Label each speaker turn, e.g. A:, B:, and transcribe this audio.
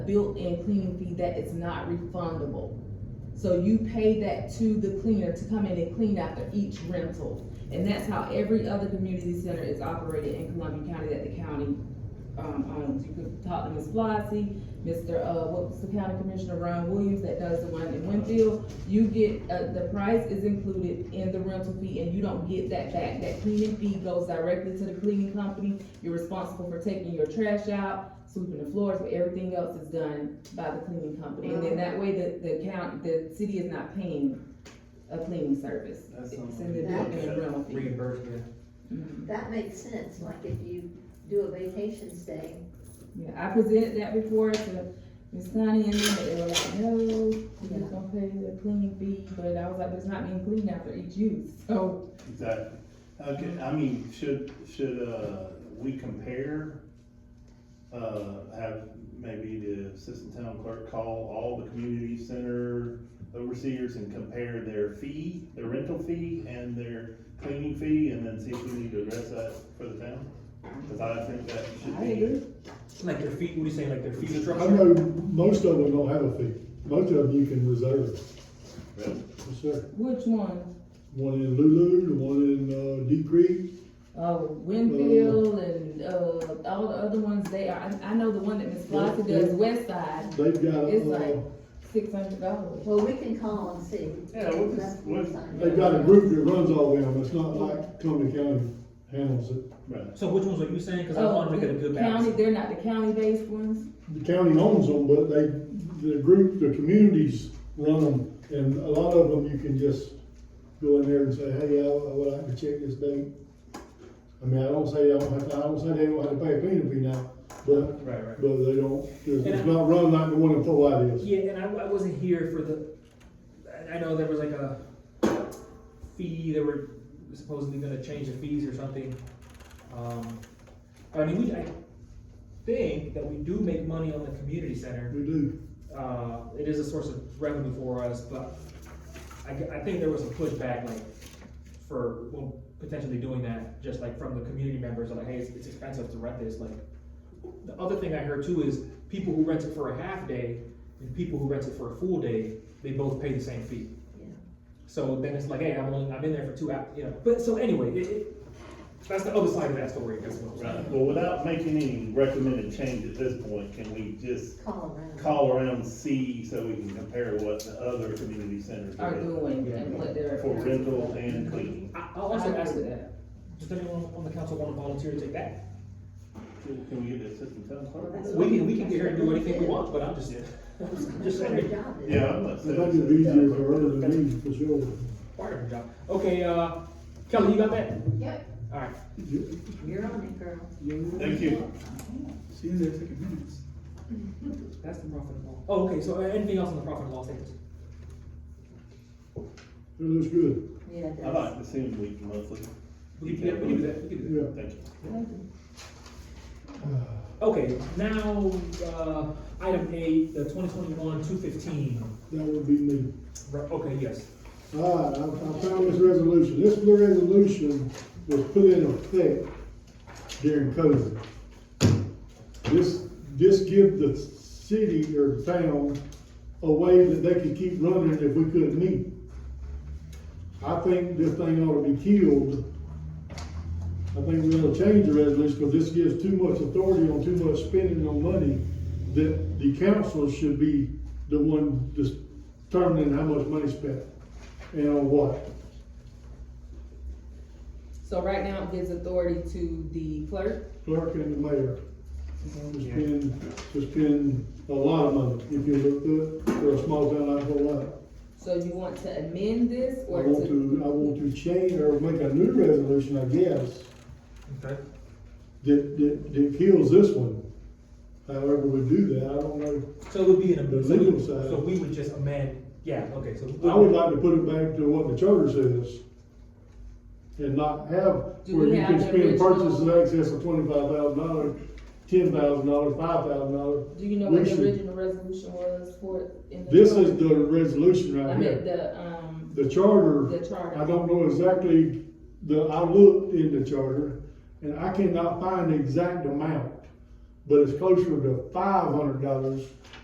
A: built-in cleaning fee that is not refundable. So you pay that to the cleaner to come in and clean after each rental. And that's how every other community center is operated in Columbia County that the county, um, owns. You could talk to Ms. Flossie, Mr., uh, what's the county commissioner, Ron Williams, that does the one in Winfield. You get, uh, the price is included in the rental fee and you don't get that back. That cleaning fee goes directly to the cleaning company. You're responsible for taking your trash out, sweeping the floors, but everything else is done by the cleaning company. And then that way the, the count, the city is not paying a cleaning service.
B: That's
A: It's
B: something.
A: in the
C: That-
A: built-in rental fee.
B: Reimbursement.
A: Mhm.
C: That makes sense, like if you do a vacation stay,
A: Yeah, I presented that before to Ms. Connie and them, but they were like, no, we're just gonna pay the cleaning fee, but I was like, there's not being cleaned after each use, so.
D: Exactly. Okay, I mean, should, should, uh, we compare? Uh, have maybe the assistant town clerk call all the community center overseers and compare their fee, their rental fee and their cleaning fee, and then see if we need to address that for the town? Cause I think that should
A: I
D: be.
A: agree.
B: Like their fee, what do you say, like their fee
E: I
B: structure?
E: know most of them don't have a fee. Most of them you can reserve.
D: Really?
E: Yes, sir.
A: Which one?
E: One in Lulu, the one in, uh, Deep Creek.
A: Uh, Winfield and, uh, all the other ones, they are, I, I know the one that Ms. Flossie does, West Side.
E: They've got,
A: It's
E: uh,
A: like- Six hundred dollars.
C: well, we can call and see.
D: Yeah, we'll
C: That's
D: just, we'll,
C: fine.
E: they've got a group that runs all of them. It's not like Cumberland County handles it.
D: right.
B: So which ones are you saying? Cause I wanna make it a good
A: County,
B: balance.
A: they're not Oh, the county-based ones,
E: The county owns them, but they, the group, the communities run them. And a lot of them you can just go in there and say, hey, I, I would like to check this date. I mean, I don't say I don't have to, I don't say they don't have to pay a cleaning fee now, but
B: Right, right.
E: But they don't, it's it's not run like the one in Fort White is.
B: Yeah, and I, I wasn't here for the, I- I know there was like a fee, they were supposedly gonna change the fees or something. Um, but I mean, we, I think that we do make money on the community center.
E: We do.
B: Uh, it is a source of revenue for us, but I, g- I think there was a pushback like for well, potentially doing that, just like from the community members, like, hey, it's, it's expensive to rent this, like. The other thing I heard too is people who rent it for a half day and people who rent it for a full day, they both pay the same fee.
C: Yeah.
B: So then it's like, hey, I'm only, I'm in there for two hours, you know, but so anyway, it, it, that's the other side of that story, that's what I'm
D: Right,
B: saying.
D: well, without making any recommended change at this point, can we just
C: Call around.
D: call around and see so we can compare what the other community centers
A: are
D: are doing
A: doing and what they're.
D: for rental and cleaning.
B: I, I'll also ask that, does anyone on the council wanna volunteer to take that?
D: Can we get the assistant town clerk?
B: We can, we can get here and do anything we want, but I'm just, I'm just
C: That's what her
B: saying,
C: job is.
D: Yeah, I'm not
E: I
D: saying.
E: think it'd be easier for her than me, for sure.
B: part of her job. Okay, uh, Kelly, you got that?
C: Yep.
B: Alright,
C: You're on it, girl.
D: Thank you.
F: She in there taking minutes.
B: that's the profit and loss. Oh, okay, so uh, anything else on the profit and loss tables?
E: It looks good.
C: Yeah, it does.
D: I like to see them weekly, monthly.
B: We can, yeah, we can do that, we can do
E: Yeah.
D: Thank you.
B: that. Okay, now, uh, item eight, the twenty twenty-one, two fifteen.
E: That would be me.
B: Okay, yes.
E: All right, I, I found this resolution. This blue resolution was put in effect during COVID. This, this give the city or town a way that they could keep running if we couldn't meet. I think this thing ought to be killed. I think we ought to change the resolution, because this gives too much authority on too much spending on money that the council should be the one determining how much money spent and on what.
A: So right now it gives authority to the clerk.
E: Clerk and the mayor. It's been, it's been a lot of money, if you look through it, for a small town like Fort White.
A: So you want to amend this
E: I
A: or
E: want
A: to?
E: to, I want to change or make a new resolution, I guess,
B: Okay.
E: that, that, that kills this one. However we do that, I don't know.
B: So it would be an,
E: The
B: so
E: legal
B: we,
E: side.
B: so we would just amend, yeah, okay, so.
E: I would like to put it back to what the charter says. And not have
A: Do
E: where
A: we
E: you can
A: have the
E: spend purchase in
A: original?
E: excess of twenty-five thousand dollars, ten thousand dollars, five thousand dollars.
A: Do you know
E: we
A: what the
E: should-
A: original resolution was for it? in the
E: This
A: charter?
E: is the resolution
A: I
E: right
A: meant
E: here.
A: the, um,
E: The charter,
A: the charter.
E: I don't know exactly, the, I looked in the charter, and I cannot find the exact amount. but it's closer to five hundred dollars